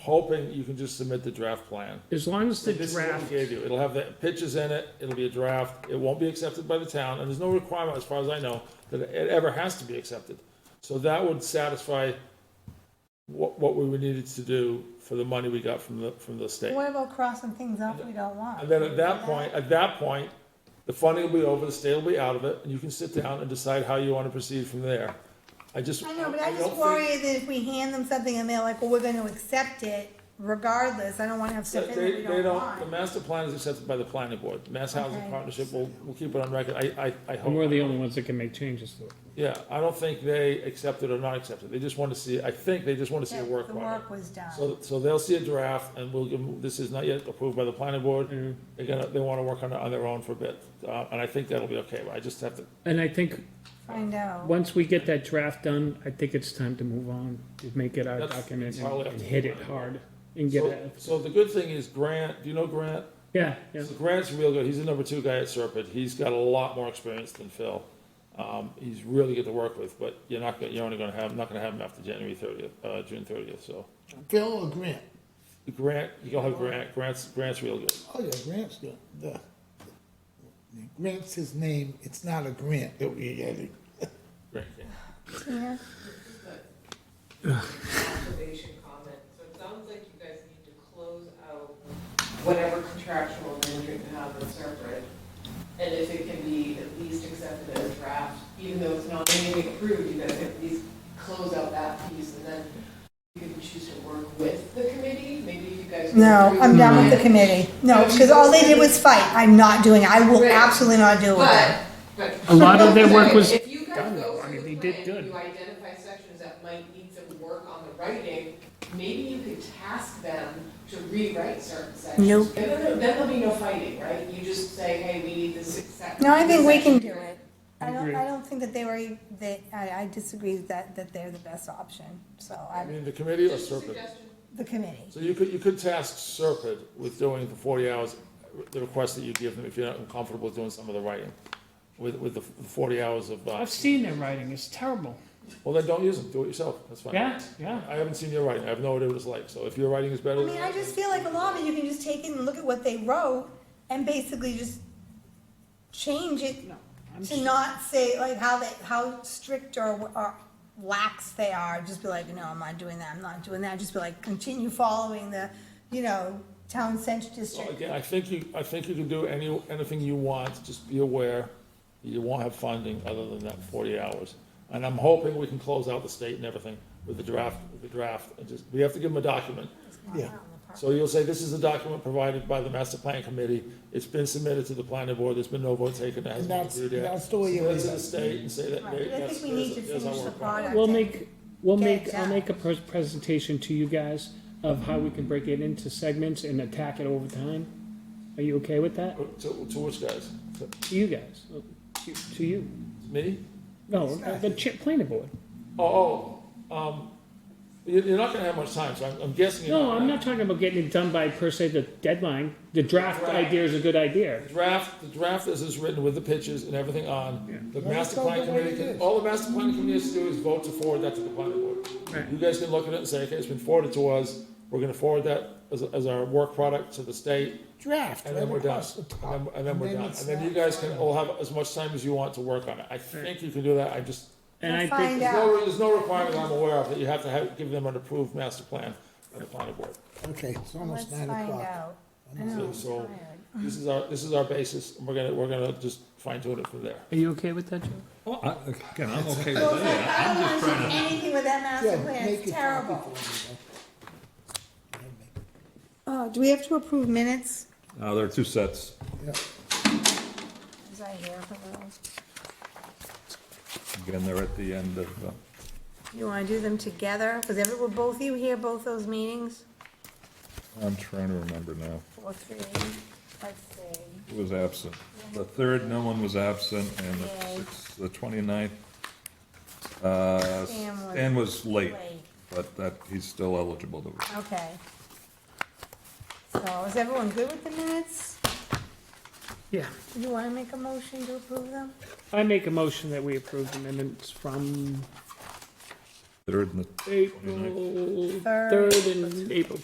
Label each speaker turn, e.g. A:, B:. A: hoping you can just submit the draft plan.
B: As long as the
A: This is what we
B: draft,
A: gave you. It'll have the pictures in it, it'll be a draft, it won't be accepted by the town, and there's no requirement, as far as I know, that it ever has to be accepted. So that would satisfy what, what we needed to do for the money we got from the, from the state.
C: What about crossing things off we don't want?
A: And then at that point, at that point, the funding will be over, the state will be out of it, and you can sit down and decide how you wanna proceed from there. I just.
C: I know, but I
A: don't
C: just
A: think-
C: worry that if we hand them something and they're like, well, we're gonna accept it regardless, I don't wanna have stuff in that
A: They,
C: we
A: they
C: don't
A: don't, the
C: want.
A: master plan is accepted by the planning board, Mass Housing
C: Okay.
A: Partnership will, will keep it on record, I, I, I
B: and we're
A: hope.
B: the only ones that can make changes to it.
A: Yeah, I don't think they accept it or not accept it, they just wanna see, I think they just wanna see a
C: that
A: work
C: The
A: product.
C: work was done.
A: So, so they'll see a draft and we'll give, them- this is not yet approved by the planning board,
B: Mm-hmm.
A: they're gonna, they wanna work on it on their own for a bit, uh, and I think that'll be okay, but I just have to
B: And I think,
C: Find out.
B: once we get that draft done, I think it's time to move on, to make it our
A: That's
B: document and
A: entirely up
B: and
A: to
B: hit
A: the
B: it
A: board.
B: hard and get
A: So-
B: it,
A: So the good thing is Grant, do you know Grant?
B: yeah, yeah.
A: So Grant's real good. He's the number two guy at Serpent. He's got a lot more experience than Phil. Um, he's really good to work with, but you're not, gonna- you're only gonna have, not gonna have him after January thirtieth, uh, June thirtieth, so.
D: Phil or Grant?
A: Grant, you'll have Grant, Grant's, Grant's real good.
D: Oh yeah, Grant's good. The, Grant's his name. It's not a grant that we're getting.
A: Grant King.
C: Yeah.
E: observation comment, so it sounds like you guys need to close out whatever contractual arrangement you have with Serpent, and if it can be at least accepted as draft, even though it's not anything approved, you guys can at least close out that piece, and then you can choose to work with the committee, maybe if you guys. Hmm.
C: No, I'm done with
A: Hmm.
C: the
E: committee.
C: committee. No, cause all they did was fight. I'm not doing it. I will
E: Right.
C: absolutely not do it.
E: But, but.
B: A lot of their work was
E: If you guys
B: done,
E: go
B: though. I
E: through
B: mean,
E: the
B: they did
E: plan,
B: good.
E: you identify sections that might need some work on the writing, maybe you could task them to rewrite certain sections.
C: Nope.
E: Then there- then there'll be no fighting, right? You just say, hey, we need this exact.
C: No, I think we can
E: section.
C: do it. I don't, I don't think that they were, they, I, I disagree that, that they're the best option, so
A: I
C: I,
A: mean, the committee or
E: Just a
A: Serpent?
E: suggestion.
C: the committee.
A: So you could, you could task Serpent with doing the forty hours, the request that you give them if you're not comfortable with doing some of the writing. With, with the forty hours of, uh,
B: I've seen their writing, it's terrible,
A: well, then don't use them. Do it yourself. That's fine.
B: yeah, yeah.
A: I haven't seen your writing. I have no idea what it's like. So if your writing is better,
C: I mean, I just feel like a lot of it, you can just take it and look at what they wrote and basically just change it
B: I'm
C: to not say like how they, how strict or, or lax they are, just be like, no, I'm not doing that, I'm not doing that, just be like, continue following the, you know, town center
A: Well,
C: district.
A: again, I think you, I think you can do any, anything you want. Just be aware you won't have funding other than that forty hours. And I'm hoping we can close out the state and everything with the draft, with the draft. And just, we have to give them a document.
D: Yeah.
A: So you'll say, this is the document provided by the master plan committee. It's been submitted to the planning board. There's been no vote taken. It
D: And
A: hasn't been
D: that's
A: reviewed yet.
D: that's the way you
A: Submit it
D: raise
A: to the
D: it.
A: state and say that.
C: Right, but I
A: that's-
C: think we need
A: there's-
C: to
A: there's our
C: finish the
A: work product.
C: product.
B: We'll make, we'll
C: Get
B: make,
C: it
B: I'll
C: done.
B: make a pres- presentation to you guys of how we can break it into segments and attack it over time. Are you okay with that?
A: Uh, To, to which guys? To-
B: To you guys, to to you,
A: Me?
B: no, the cha- planning board.
A: Oh, oh, um, you, you're not gonna have much time, so I'm, I'm guessing. you're
B: No, I'm not talking about getting it done by per se the deadline. The draft
A: Right.
B: idea is a good idea.
A: The Draft, the draft as it's written with the pictures and everything on, the
D: Well,
A: master
D: that's all
A: plan
D: the way
A: committee,
D: it
A: can-
D: is.
A: all the master plan committee has to do is vote to forward that to the planning board.
B: Right.
A: You guys can look at it and say, okay, it's been forwarded to us, we're gonna forward that as, as our work product to the state,
D: Draft
A: and then we're
D: right
A: done.
D: across the top.
A: And then, and then we're done, and
D: it's
A: then you
D: not
A: guys can
D: final.
A: all have as much time as you want to work on it. I think you can do that, I just,
B: And I
C: We'll
B: think,
C: find
A: there's
C: out.
A: no, there's no requirement I'm aware of that you have to have, give them an approved master plan by the planning board.
D: Okay, it's
C: Let's
D: almost nine
C: find
D: o'clock.
C: out. I know, I'm
A: So-
C: tired.
A: This is our, this is our basis, and we're gonna, we're gonna just fine tune it from there.
B: are you okay with that, Joe?
F: Well, I- again, I'm okay
C: Well,
F: with
C: it's
F: that.
C: like, I don't wanna do anything with that
D: Yeah,
C: master plan,
D: make
C: it's
D: a copy
C: terrible.
D: for me, though. Yeah, make it-
C: Oh, do we have to approve minutes?
F: Uh, there are two sets.
C: Was I here for those?
F: Again, they're at the end of, uh,
C: You wanna do them together? Cause ever, were both you here, both those meetings?
F: I'm trying to remember now.
C: Four, three, let's see.
F: Who was absent? The third, no one was absent, and the
C: Yay.
F: sixth, the twenty-ninth. Uh,
C: Stan was
F: Stan was late,
C: Wait,
F: but that, he's still eligible to,
C: okay. So is everyone good with the minutes?
B: Yeah.
C: Do you wanna make a motion to approve them?
B: I make a motion that we approve the minutes from
F: third and the
B: April
C: Third.
B: third and April